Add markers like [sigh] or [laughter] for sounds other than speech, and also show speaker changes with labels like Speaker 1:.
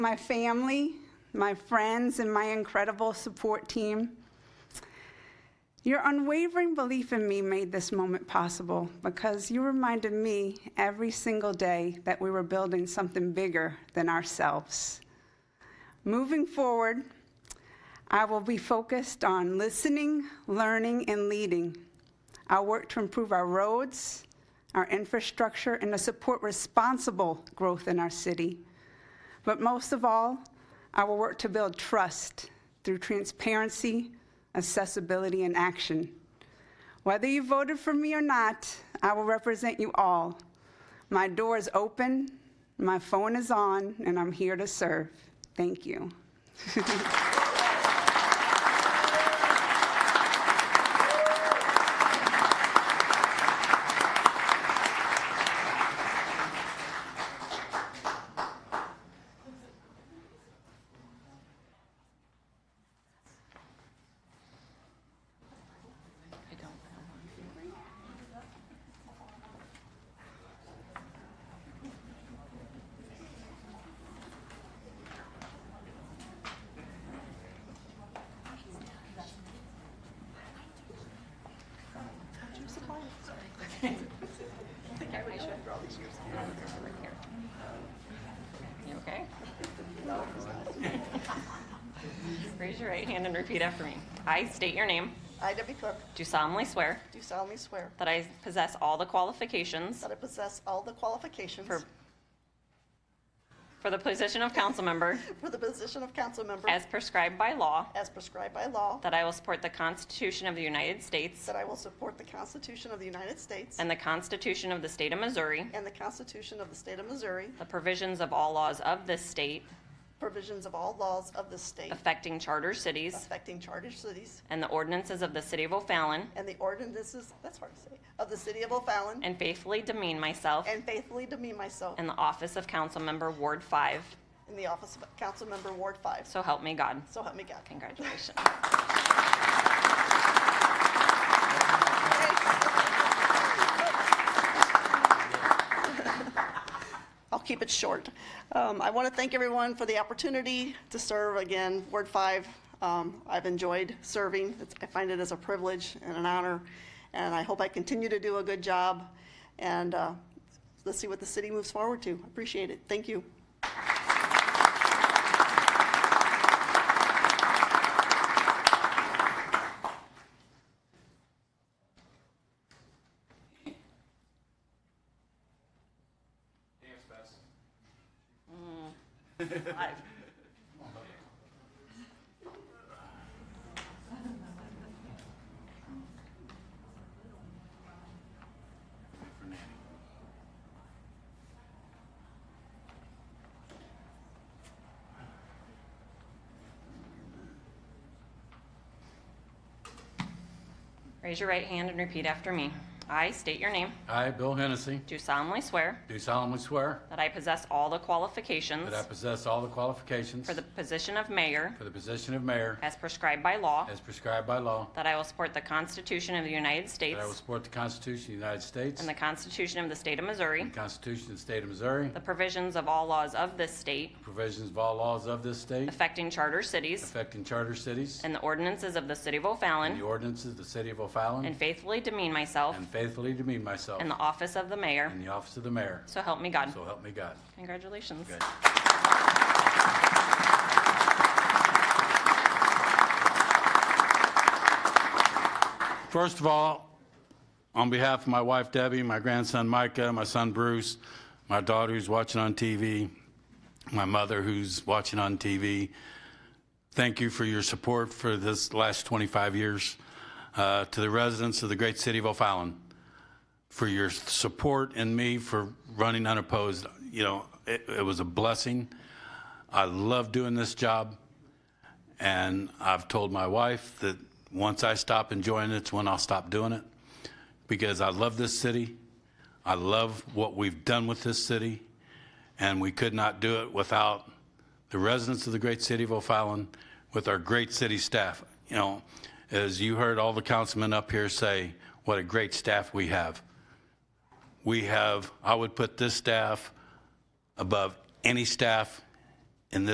Speaker 1: my family, my friends, and my incredible support team. Your unwavering belief in me made this moment possible because you reminded me every single day that we were building something bigger than ourselves. Moving forward, I will be focused on listening, learning, and leading. I'll work to improve our roads, our infrastructure, and to support responsible growth in our city. But most of all, I will work to build trust through transparency, accessibility, and action. Whether you voted for me or not, I will represent you all. My door is open, my phone is on, and I'm here to serve. Thank you.
Speaker 2: You okay? Raise your right hand and repeat after me. I state your name,
Speaker 3: I, Debbie Cook,
Speaker 2: do solemnly swear
Speaker 3: do solemnly swear
Speaker 2: that I possess all the qualifications
Speaker 3: that I possess all the qualifications
Speaker 2: For- for the position of council member
Speaker 3: [laughs] for the position of council member
Speaker 2: as prescribed by law,
Speaker 3: as prescribed by law,
Speaker 2: that I will support the Constitution of the United States
Speaker 3: that I will support the Constitution of the United States
Speaker 2: and the Constitution of the State of Missouri,
Speaker 3: and the Constitution of the State of Missouri,
Speaker 2: the provisions of all laws of this state
Speaker 3: provisions of all laws of this state
Speaker 2: affecting charter cities,
Speaker 3: affecting charter cities,
Speaker 2: and the ordinances of the City of O'Fallon,
Speaker 3: and the ordinances, that's hard to say, of the City of O'Fallon,
Speaker 2: and faithfully demean myself
Speaker 3: and faithfully demean myself
Speaker 2: in the office of council member Ward 5.
Speaker 3: in the office of council member Ward 5.
Speaker 2: So help me God.
Speaker 3: So help me God.
Speaker 2: Congratulations.
Speaker 3: I'll keep it short. Um, I want to thank everyone for the opportunity to serve again, Ward 5. Um, I've enjoyed serving. It's- I find it as a privilege and an honor, and I hope I continue to do a good job. And uh, let's see what the city moves forward to. Appreciate it. Thank you.
Speaker 2: Raise your right hand and repeat after me. I state your name.
Speaker 4: I, Bill Hennessy,
Speaker 2: Do solemnly swear
Speaker 4: do solemnly swear
Speaker 2: that I possess all the qualifications
Speaker 4: that I possess all the qualifications
Speaker 2: for the position of mayor
Speaker 4: for the position of mayor
Speaker 2: as prescribed by law,
Speaker 4: as prescribed by law,
Speaker 2: that I will support the Constitution of the United
Speaker 4: that I will
Speaker 2: States
Speaker 4: support the Constitution of the United States
Speaker 2: and the Constitution of the State of Missouri,
Speaker 4: the Constitution of the State of Missouri,
Speaker 2: the provisions of all laws of this state
Speaker 4: provisions of all laws of this state
Speaker 2: affecting charter cities,
Speaker 4: affecting charter cities,
Speaker 2: and the ordinances of the City of
Speaker 4: and the
Speaker 2: O'Fallon,
Speaker 4: ordinances of the City of O'Fallon,
Speaker 2: and faithfully demean myself
Speaker 4: Mm. and faithfully demean myself
Speaker 2: in the office of the mayor.
Speaker 4: in the office of the mayor.
Speaker 2: So help me God.
Speaker 4: So help me God.
Speaker 2: Congratulations.
Speaker 4: Okay. First of all, on behalf of my wife Debbie, my grandson Micah, my son Bruce, my daughter who's watching on TV, my mother who's watching on TV, thank you for your support for this last 25 years. Uh, to the residents of the great city of O'Fallon, for your support and me for running unopposed. You know, it, it was a blessing. I love doing this job. And I've told my wife that once I stop enjoying it's when I'll stop doing it because I love this city. I love what we've done with this city. And we could not do it without the residents of the great city of O'Fallon, with our great city staff. You know, as you heard all the councilmen up here say, what a great staff we have. We have, I would put this staff above any staff